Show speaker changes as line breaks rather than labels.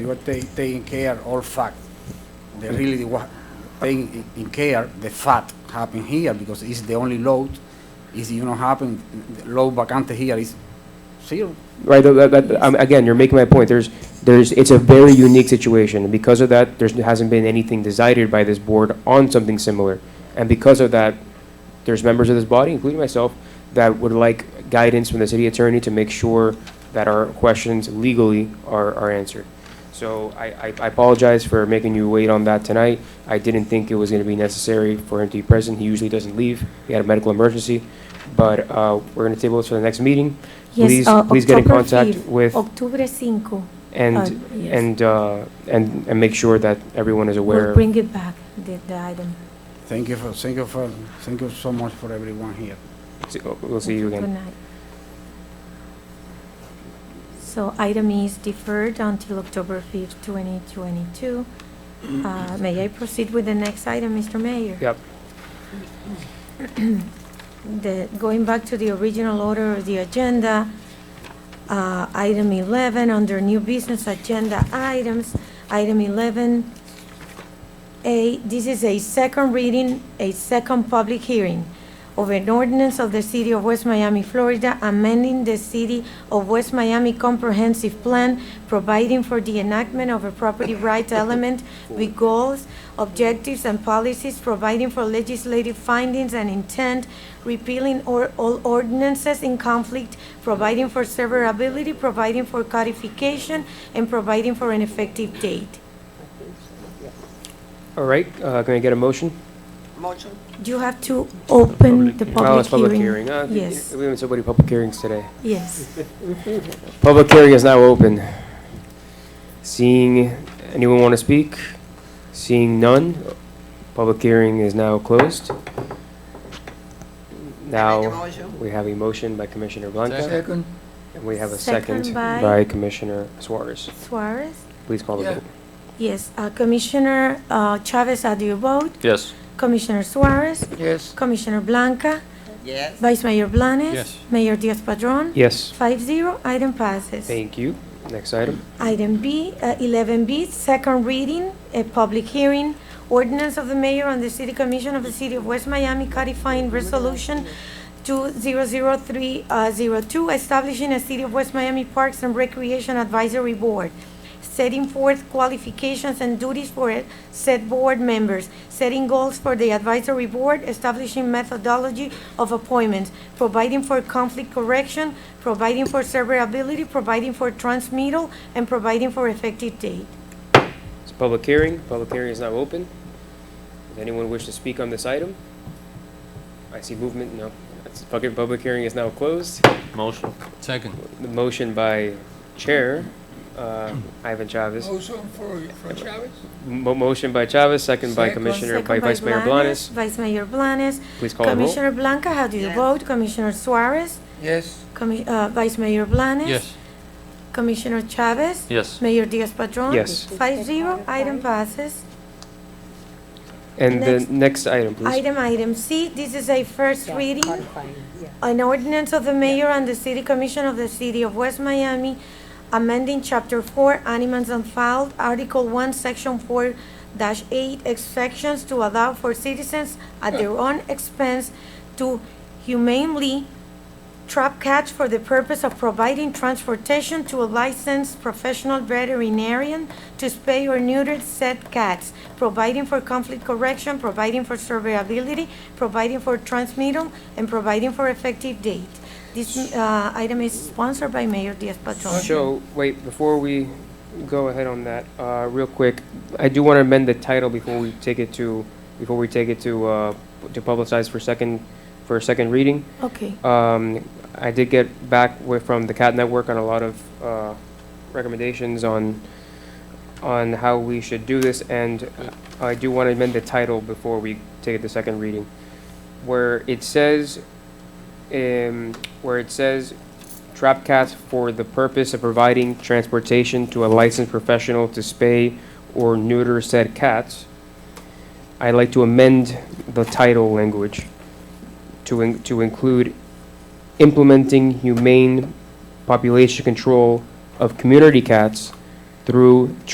You are ta- taking care all fact. They really wa- taking in care the fact happen here because it's the only load. Is you know happen the load vacante here is zero.
Right, uh, that, that, um, again, you're making my point, there's, there's, it's a very unique situation, and because of that, there hasn't been anything decided by this board on something similar. And because of that, there's members of this body, including myself, that would like guidance from the city attorney to make sure that our questions legally are, are answered. So I, I- I apologize for making you wait on that tonight. I didn't think it was gonna be necessary for him to be present, he usually doesn't leave, he had a medical emergency. But, uh, we're gonna table this for the next meeting.
Yes,
Please,
uh,
please get in
October
contact
5th.
with,
Octubre 5. uh,
and,
yes.
and, uh, and, and make sure that everyone is
We'll
aware.
bring it back, the, the item.
Thank you for thank you for thank you so much for everyone here.
See- oh, We'll see you
Good
again.
night. So item is deferred until October 5th, 2022. Uh, May I proceed with the next item, Mr. Mayor?
Yep.
The, going back to the original order of the agenda, uh, item 11, under new business agenda items, item 11, a, this is a second reading, a second public hearing of an ordinance of the City of West Miami, Florida, amending the City of West Miami Comprehensive Plan, providing for the enactment of a property rights element with goals, objectives, and policies, providing for legislative findings and intent, repealing or, all ordinances in conflict, providing for severability, providing for codification, and providing for an effective date.
All right, uh, can I get a motion?
Motion,
You have to open the
Well, it's
public hearing.
Uh, th-
Yes.
We haven't said what do public hearings today.
Yes.
Public hearing is now open. Seeing, anyone want to speak? Seeing none, public hearing is now closed.
I make a
Now,
motion.
we have a motion by Commissioner Blanca,
Second?
and we have a second
Second by-
by Commissioner Suarez.
Suarez?
Please call the
Yeah.
vote.
Yes. Uh, Commissioner uh, Chavez, how do you vote?
Yes.
Commissioner Suarez?
Yes.
Commissioner Blanca?
yes.
Vice Mayor Blanes?
Yes.
Mayor Diaz-Padrón?
Yes.
Five zero, item passes.
Thank you. Next item.
Item B, uh, 11B, second reading, a public hearing, ordinance of the mayor and the city commission of the city of West Miami codifying resolution 200302, uh, establishing a city of West Miami Parks and Recreation Advisory Board, setting forth qualifications and duties for said board members, setting goals for the advisory board, establishing methodology of appointments, providing for conflict correction, providing for severability, providing for transmittal, and providing for effective date.
It's a public hearing. Public hearing is now open. Does anyone wish to speak on this item? I see movement. No. That's, public, public hearing is now closed.
Motion. Second.
The motion by Chair, uh, Ivan Chavez.
Motion for, for Chavez?
Mo- motion by Chavez, second by
Second.
Commissioner,
Second
by Vice Mayor Blanes.
Vice Mayor Blanes.
Please call the roll.
Commissioner Blanca, how do you
Yes.
vote? Commissioner Suarez?
Yes.
Commi- uh, Vice Mayor Blanes?
Yes.
Commissioner Chavez?
Yes.
Mayor Diaz-Padrón?
Yes.
Five zero, item passes.
And the
Next.
next item, please.
Item, item C, this is a first reading, an ordinance of the mayor and the city commission of the city of West Miami amending chapter four, animals unfiled, article one, section four dash eight, exceptions to allow for citizens at their own expense to humanely trap cats for the purpose of providing transportation to a licensed professional veterinarian to spay or neuter said cats, providing for conflict correction, providing for surveyability, providing for transmittal, and providing for effective date. This uh, item is sponsored by Mayor Diaz-Patron.
So, wait, before we go ahead on that, uh, real quick, I do want to amend the title before we take it to, before we take it to, uh, to publicize for second, for a second reading.
Okay,
Um, I did get back with, from the Cat Network on a lot of, uh, recommendations on, on how we should do this, and I do want to amend the title before we take it to second reading. Where it says, um, where it says, trap cats for the purpose of providing transportation to a licensed professional to spay or neuter said cats, I'd like to amend the title language to, in- to include implementing humane population control of community cats through